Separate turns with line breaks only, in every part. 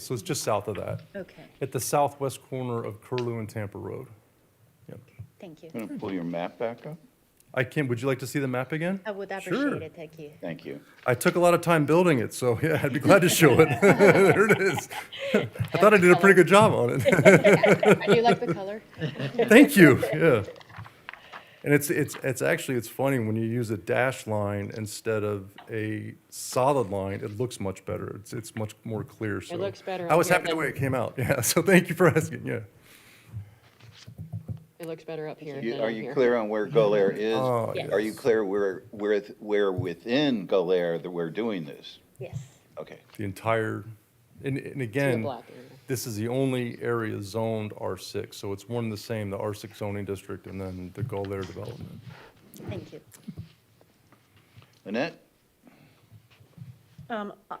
So it's just south of that,
Okay,
at the southwest corner of Curlew and Tampa Road. Yep.
thank you.
I'm going to pull your map back up.
I can, would you like to see the map again?
Oh.
I would
Sure.
appreciate it, thank you.
Thank you.
I took a lot of time building it, so yeah, I'd be glad to show it. There it is. I thought I did a pretty good job on it.
Do you like the color?
Thank you, yeah. And it's, it's, it's actually, it's funny, when you use a dash line instead of a solid line, it looks much better. It's, it's much more clear, so.
looks better
I
up
was
here
happy the
than-
way it came out, yeah, so thank you for asking, yeah.
It looks better up here
You-
than
Are
up
you
here.
clear on where Golair is?
Oh,
Are you clear where, where, where within Golair that we're doing this?
Yes,
Okay,
The entire, and, and again.
black area.
This is the only area zoned R6, so it's one and the same, the R6 zoning district and then the Gulf development.
thank you.
Lynette?
Um, I-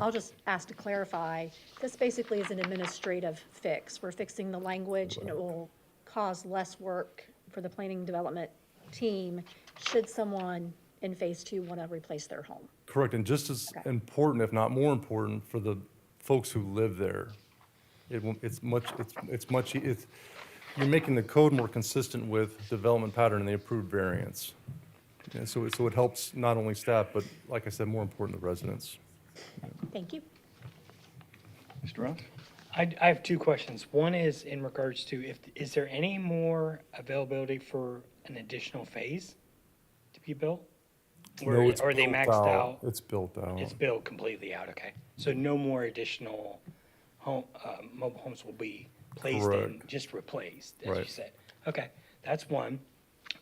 I'll just ask to clarify, this basically is an administrative fix. We're fixing the language, and it will cause less work for the planning development team should someone in Phase Two want to replace their home.
Correct, and just as
Okay.
important, if not more important, for the folks who live there. It, won't- it's much, it's, it's much, e- it's, you're making the code more consistent with development pattern and the approved variance. And so, it- so it helps not only staff, but like I said, more important, the residents.
Thank you.
Mr. Ross?
I, I have two questions. One is in regards to if, is there any more availability for an additional phase to be built? Or
No, it's
are they
built
maxed out?
It's built out.
It's built completely out, okay. So no more additional home, uh, mobile homes will be placed and
Correct.
just replaced, as you
Right.
said. Okay, that's one.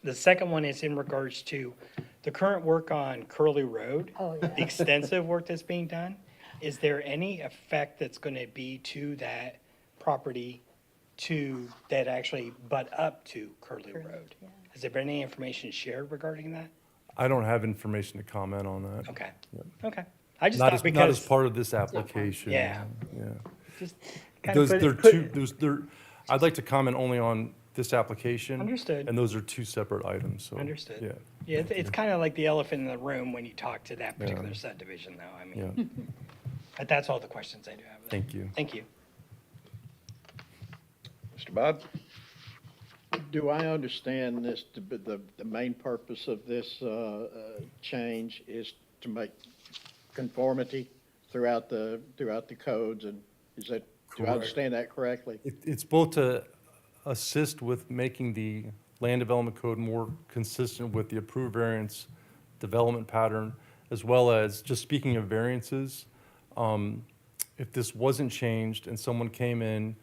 The second one is in regards to the current work on Curly Road.
Oh, yeah.
The extensive work that's being done. Is there any effect that's gonna be to that property to, that actually butt up to Curly Road? Has there been any information shared regarding that?
I don't have information to comment on that.
Okay, okay. I just
Not as,
thought
not as
because,
part of this application.
Yeah.
Yeah.
just kind of
Those,
put
they're
it, put
two, those, they're, I'd like to comment only on this application.
Understood.
And those are two separate items, so.
Understood.
Yeah,
Yeah, it's, it's kind of like the elephant in the room when you talk to that particular
Yeah.
subdivision, though, I
yeah,
mean. But that's all the questions I do have. then.
thank you.
Thank you.
Mr. Bob?
Do I understand this, to be- the, the main purpose of this uh, uh, change is to make conformity throughout the, throughout the codes, and is that, do I
Correct.
understand that correctly?
It, it's both to assist with making the land development code more consistent with the approved variance development pattern, as well as, just speaking of variances, um, if this wasn't changed and someone came in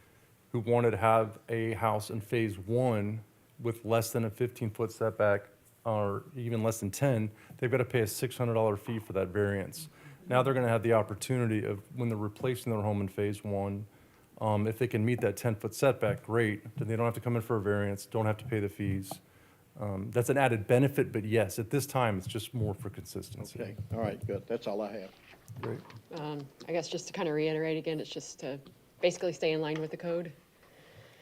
who wanted to have a house in phase one with less than a fifteen-foot setback, or even less than ten, they've got to pay a six hundred dollar fee for that variance. Now they're going to have the opportunity of, when they're replacing their home in phase one, um, if they can meet that ten-foot setback, great, then they don't have to come in for a variance, don't have to pay the fees. Um, that's an added benefit, but yes, at this time, it's just more for consistency.
Okay, all right, good, that's all I have.
Great.
Um, I guess just to kind of reiterate again, it's just to basically stay in line with the code.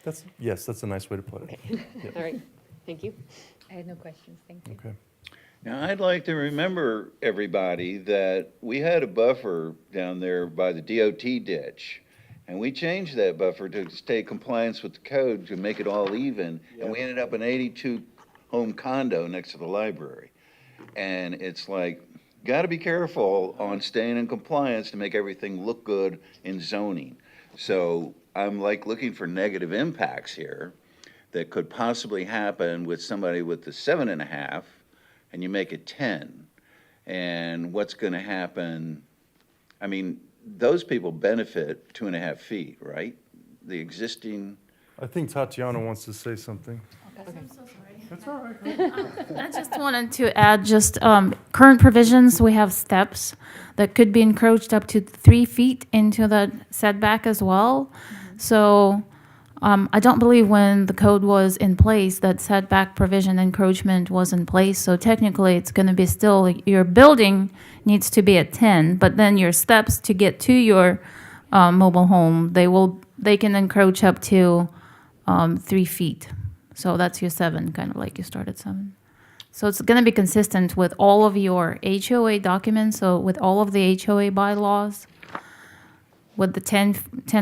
That's, yes, that's a nice way to put it.
Okay, all right, thank you.
I had no questions, thank you.
Okay.
Now, I'd like to remember everybody that we had a buffer down there by the DOT ditch. And we changed that buffer to stay compliance with the code to make it all even. And we ended up an eighty-two home condo next to the library. And it's like, gotta be careful on staying in compliance to make everything look good in zoning. So I'm like looking for negative impacts here that could possibly happen with somebody with the seven and a half, and you make it ten. And what's gonna happen, I mean, those people benefit two and a half feet, right? The existing,
I think Tatiana wants to say something.
I just wanted to add, just um, current provisions, we have steps that could be encroached up to three feet into the setback as well. So um, I don't believe when the code was in place, that setback provision encroachment was in place. So technically, it's going to be still, your building needs to be at 10, but then your steps to get to your uh, mobile home, they will, they can encroach up to um, three feet. So that's your seven, kind of like you started seven. So it's going to be consistent with all of your HOA documents, so with all of the HOA bylaws. with the 10, 10